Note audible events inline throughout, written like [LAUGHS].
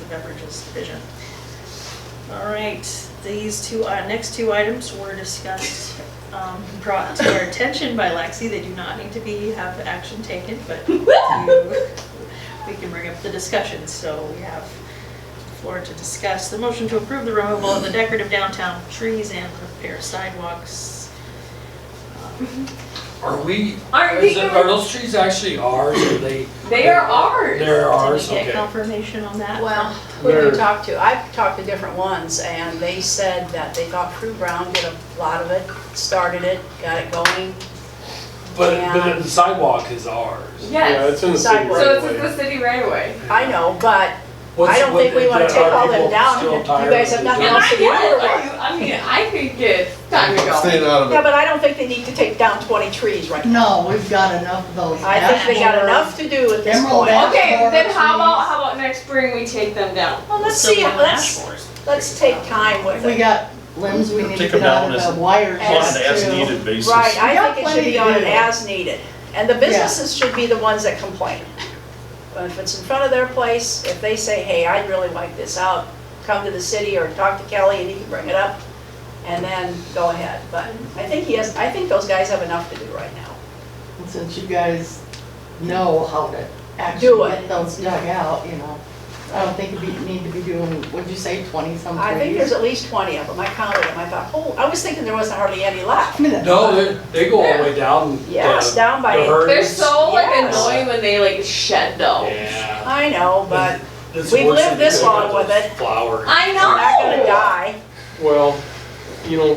and Beverages Division. All right, these two, uh, next two items were discussed, um, brought to our attention by Lexi. They do not need to be, have action taken, [LAUGHS] but you- we can bring up the discussion, so we have the floor to discuss. The motion to approve the removal of the decorative downtown trees and repair sidewalks. Are we, Aren't is we- it- are those trees actually ours or they? They are ours. They're Did ours, you get okay. confirmation on that? Well, who did They're- you talk to? I've talked to different ones, and they said that they thought Prue Brown did a lot of it, started it, got it going. But, but the sidewalk is ours. Yeah, Yes. it's in the city right So away. it's in the city right away. I know, but What's- I don't what- think we wanna are take all them people down. still You tired guys of have nothing the- And else I to do. get, I I mean, I could get time to Staying go. out of Yeah, it. but I don't think they need to take down 20 trees right now. No, we've got enough of those. I think they got Ashmore. enough to do at this Emerald point. Ash- Okay, More then how about, trees. how about next spring we take them down? Well, let's So see, we'll ask let's, for it. let's take time with We it. got limbs we need to Take get 'em down out of as- the wires. wanted as too. needed basis. Right, We I got think it should plenty be to on an do. as needed. And the businesses should be the ones that complain. But if it's in front of their place, if they say, hey, I'd really like this out, come to the city or talk to Kelly and he can bring it up, and then go ahead. But I think he has, I think those guys have enough to do right now. And Since you guys know how to Do actually it. get those dug out, you know, I don't think we need to be doing, what'd you say, twenty some trees? I think there's at least 20 of them. I counted them. I thought, oh, I was thinking there wasn't hardly any left. I mean, that's No, fine. they, they go all the way down. the- Yes, down by- the herds. They're so like Yes. annoying when they like shed though. Yeah. I know, [LAUGHS] but It's we've worse lived than you this could long have with those it. Flowers. I they're not gonna know. die. Well, you know,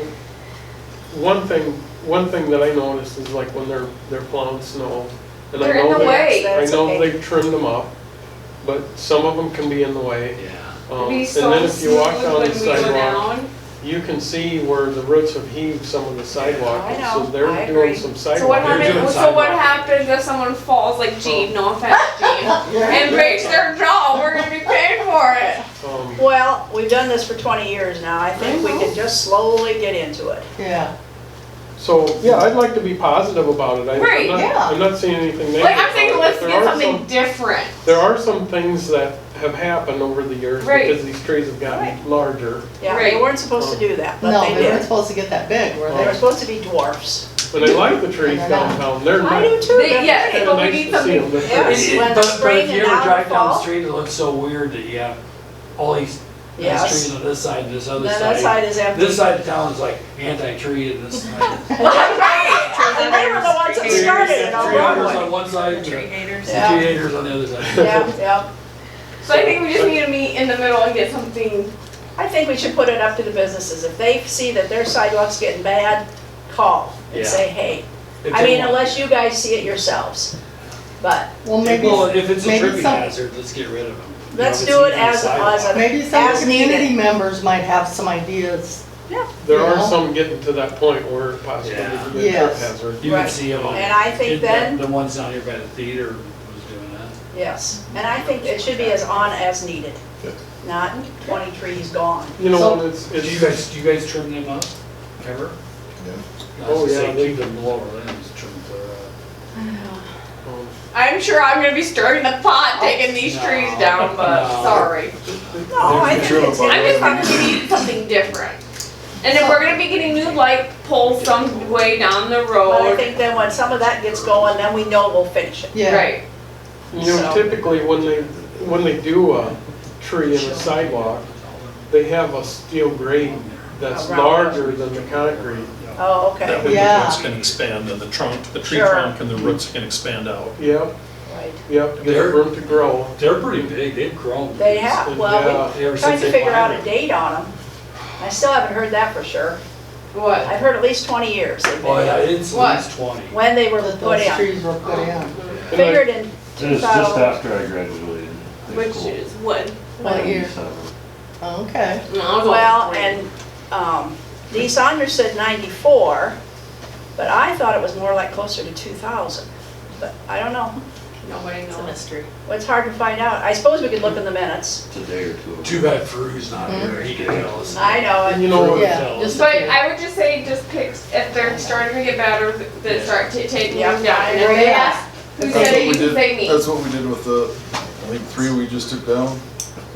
one thing, one thing that I noticed is like when they're, they're plowing snow. and I They're in know the they- way. I That's know okay. they've trimmed them up, but some of them can be in the way. Yeah. Um, Be And so then if you walk smooth down when the we go sidewalk, down. you can see where the roots have heaved some of the sidewalk. I So know. I they're agree. doing some sidewalk. So what You're doing happens, so what sidewalk. happens if someone falls like Gene, no [LAUGHS] offense Gene, Yeah. and breaks their jaw, we're gonna be paying for it. Um, Well, we've done this for 20 years now. I think we can just slowly get into it. Yeah, So, yeah, I'd like to be positive about it. I- I'm Right, not- yeah. I'm not seeing anything negative. Like I'm about thinking, it, let's but get there are some- something different. There are some things that have happened over the years Right. because these trees have gotten larger. Yeah, Right. they weren't supposed to do that, but no, they they weren't did. supposed to get that big, were They were they? supposed to be dwarfs. But I like the trees downtown, they're I nice. do too. They- that's yeah, great. but They're we nice need to see them. something- They're pretty. Yes. When But- it's raining But if you out ever in drive down the fall- street, it looks so weird that you have all these, these Yes. trees on this side and this Then other that side. side is empty. [LAUGHS] This side of town is like anti-tree and this side. [LAUGHS] And they were the ones that Tree started it all Tree huggers along on one side, and Tree tree haters. Yeah. haters on the other side. Yeah, yeah. So I think we just need to meet in the middle and get something. I think we should put it up to the businesses. If they see that their sidewalk's getting bad, call and Yeah. say, hey. If I they mean, want- unless you guys see it yourselves. But Well, maybe, Well, if it's a maybe tripping some- hazard, let's get rid of them. You know, let's if do it it's even as it was. sidewalk. maybe some as community needed. members might have some ideas. There are Yeah. some getting to that point where it possibly Yeah. could be a trip Yes. hazard. You can Right. see them on. And I think it- the- then- The ones down here by the theater was doing that. Yes, and I think it should be as on as needed, not 20 trees gone. You know, So- and it's, Do you it's, guys, do you guys trim them up ever? Yeah. I was Oh, gonna say, yeah, they- Keep them lower limbs trimmed clear up. um, I'm sure I'm gonna be stirring the pot, Oh, taking these trees down, but No. sorry. No, I There's think no it's. trouble. I'm just thinking we need something different. And if we're gonna be getting new light poles some way down the But I road, think then when some of that gets going, then we know we'll finish it. Yeah, right? you know, So- typically when they, when they do a tree in a sidewalk, they have a steel grate that's Around it. larger than the concrete. Oh, That okay, way the Yeah. roots can expand and the trunk, the tree Sure. trunk and the roots can expand out. Yep, right. yep, They're- there's room to grow. They're pretty big, they've grown. They have, well, Ever we're trying since to they figure out a planted. date on them. I still haven't heard that for sure. What? I've heard at least 20 years they've Oh, been yeah, there, it's What? at least twenty. when they were that put those in. trees were put in. And I- Figured in Just, just 2000, after I graduated. uh, high Which school. is what? What year? Seven. Okay. well, and, um, Dee Saunders said 94, but I thought it was more like closer to 2000. But I don't know. Nobody It's a knows. mystery. Well, it's hard to find out. I suppose we could look in the minutes. It's a day or two. ago. Too bad Fru's not here, he could tell us. I know, And you and know, Fru'd Yeah, tell us. just- But I would just say, just pick, if they're starting to get better, then start ta- taking Yeah, them down. I And if they agree. ask, who That's said what it, we you can did- say me. That's what we did with the, I think, three we just took down.